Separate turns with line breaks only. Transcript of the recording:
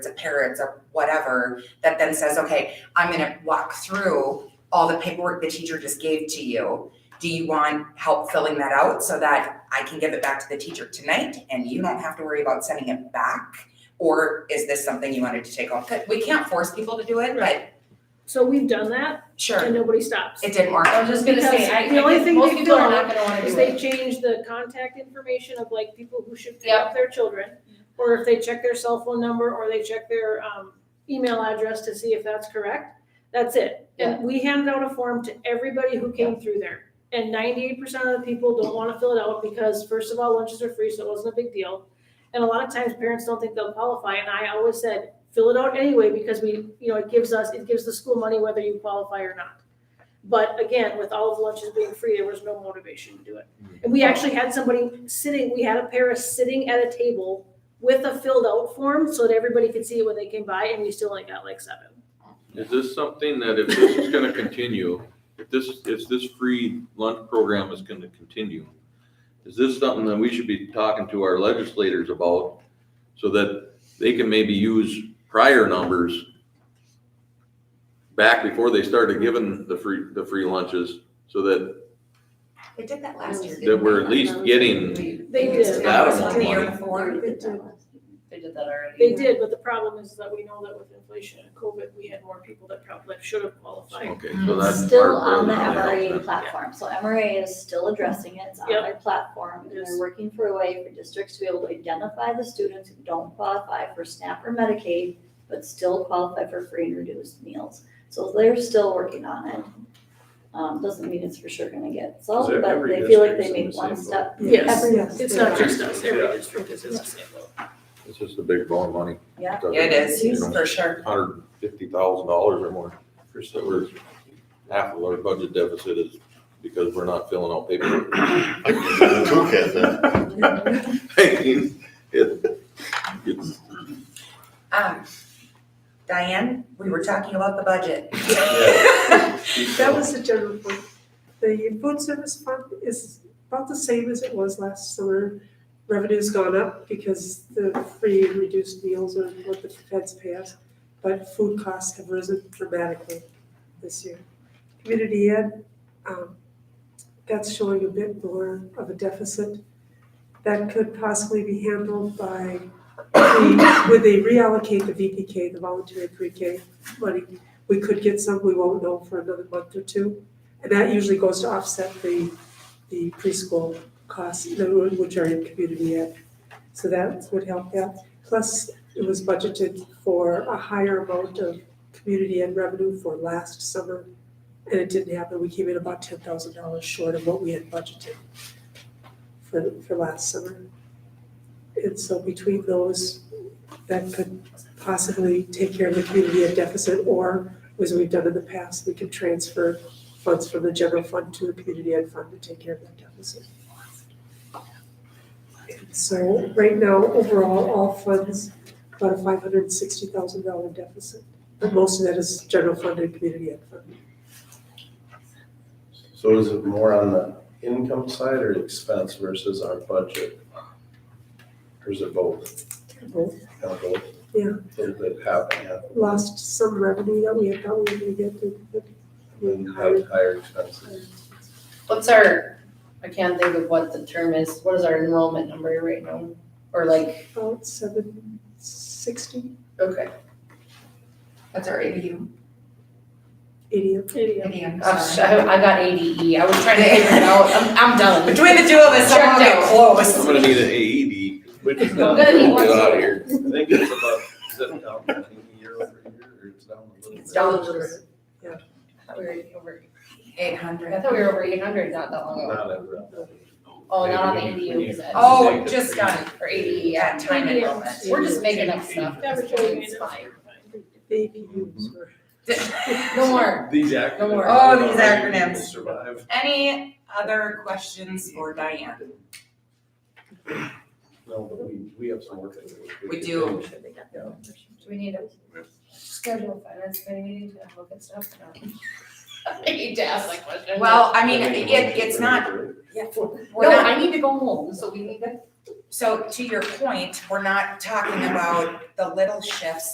it's a parrot, it's a whatever, that then says, okay, I'm gonna walk through all the paperwork the teacher just gave to you. Do you want help filling that out so that I can give it back to the teacher tonight and you don't have to worry about sending it back? Or is this something you wanted to take off? 'Cause We can't force people to do it, but
So we've done that and
sure,
nobody stops.
it didn't work.
I was just gonna say, I, I
Because the only
think
thing
most
they've
people are
done
not gonna wanna
Is
do
they
it.
change the contact information of like people who should pick up their children. Or if they check their cell phone number or they check their um email address to see if that's correct, that's it. And we handed out a form to everybody who came through there. And ninety-eight percent of the people don't wanna fill it out because first of all, lunches are free, so it wasn't a big deal. And a lot of times parents don't think they'll qualify and I always said, fill it out anyway because we, you know, it gives us, it gives the school money whether you qualify or not. But again, with all of lunches being free, there was no motivation to do it. And we actually had somebody sitting, we had a pair of sitting at a table with a filled out form so that everybody could see it when they came by and we still only got like seven.
Is this something that if this is gonna continue, if this, if this free lunch program is gonna continue, is this something that we should be talking to our legislators about so that they can maybe use prior numbers back before they started giving the free, the free lunches, so that,
They did that last year.
that we're at least getting,
They did,
That was
The year
money.
before.
They did that already.
they did, but the problem is that we know that with inflation and COVID, we had more people that probably should have qualified.
okay, so that's.
Still
part of
on the
it.
MRA platform, so MRA is still addressing it, it's on
Yep.
their platform, and
Yes.
they're working for a way for districts to be able to identify the students who don't qualify for SNAP or Medicaid, but still qualify for free and reduced meals, so they're still working on it. Um, doesn't mean it's for sure gonna get solved,
Is
but
every
they feel like
district's
they
in
made
the
one
same
step.
Yes,
Every-
it's not just us, every district is in the same boat.
It's just a big ball of money.
Yeah.
Yeah, It is, for sure.
Hundred fifty thousand dollars or more, so we're, half of our budget deficit is because we're not filling out paperwork.
I can get a toolkit then.
I mean, it- it's-
Um, Diane, we were talking about the budget.
That was the general point. The food service fund is about the same as it was last summer. Revenue's gone up because the free and reduced meals are what the feds pay us, but food costs have risen dramatically this year. Community ed, um, that's showing a bit more of a deficit. That could possibly be handled by, would they reallocate the VPK, E the voluntary pre-K money we could get some, we won't know for another month or two. And that usually goes to offset the, the preschool costs, the- which are in community ed. So that would help that. Plus, it was budgeted for a higher amount of community ed revenue for last summer. And it didn't happen. We came in about ten thousand dollars short of what we had budgeted for, for last summer. And so between those, that could possibly take care of the community ed deficit or as we've done in the past, we can transfer funds from the general fund to the community ed fund to take care of that deficit. And So right now, overall, all funds, about a five hundred and sixty thousand dollar deficit, but most of that is general fund and community ed fund.
So is it more on the income side or expense versus our budget? Or is it both?
Both.
Kind of both?
Yeah.
Did that happen, yeah,
Lost some revenue that we had thought we were gonna get, but
and then had higher expenses?
What's our, I can't think of what the term is, what is our enrollment number right now? Or like,
about seven sixty,
okay,
That's our ADU.
eighty.
gosh, I, I got ADE, I was trying to figure it out, I'm, I'm done.
Between the two of us, somehow we get
I'm
close.
gonna need an AED.
Which is
I'm
not,
gonna need
Get
one.
out of here.
I think it's about, is it down I think, year over year or it's down a little bit?
It's down a little bit.
I thought we were over-
Eight
I
hundred.
thought we were over eight hundred not that long ago.
Not ever.
Oh, not on the
Maybe we
ADU,
need-
is it?
Oh, just done
Or ADE, yeah.
at time enrollment.
We're just making up stuff.
Never show you
It's fine.
The APUs were
No more.
These
Don't
acronyms.
worry.
Oh, these acronyms.
Survive.
Any other questions for Diane?
No, but we, we have some work to do.
We do.
Do we need to schedule a finance committee meeting to look at stuff? I need to ask that question.
Well, I mean, it, it's not, we're
No,
not,
I need to go home, so we need to
so to your point, we're not talking about the little shifts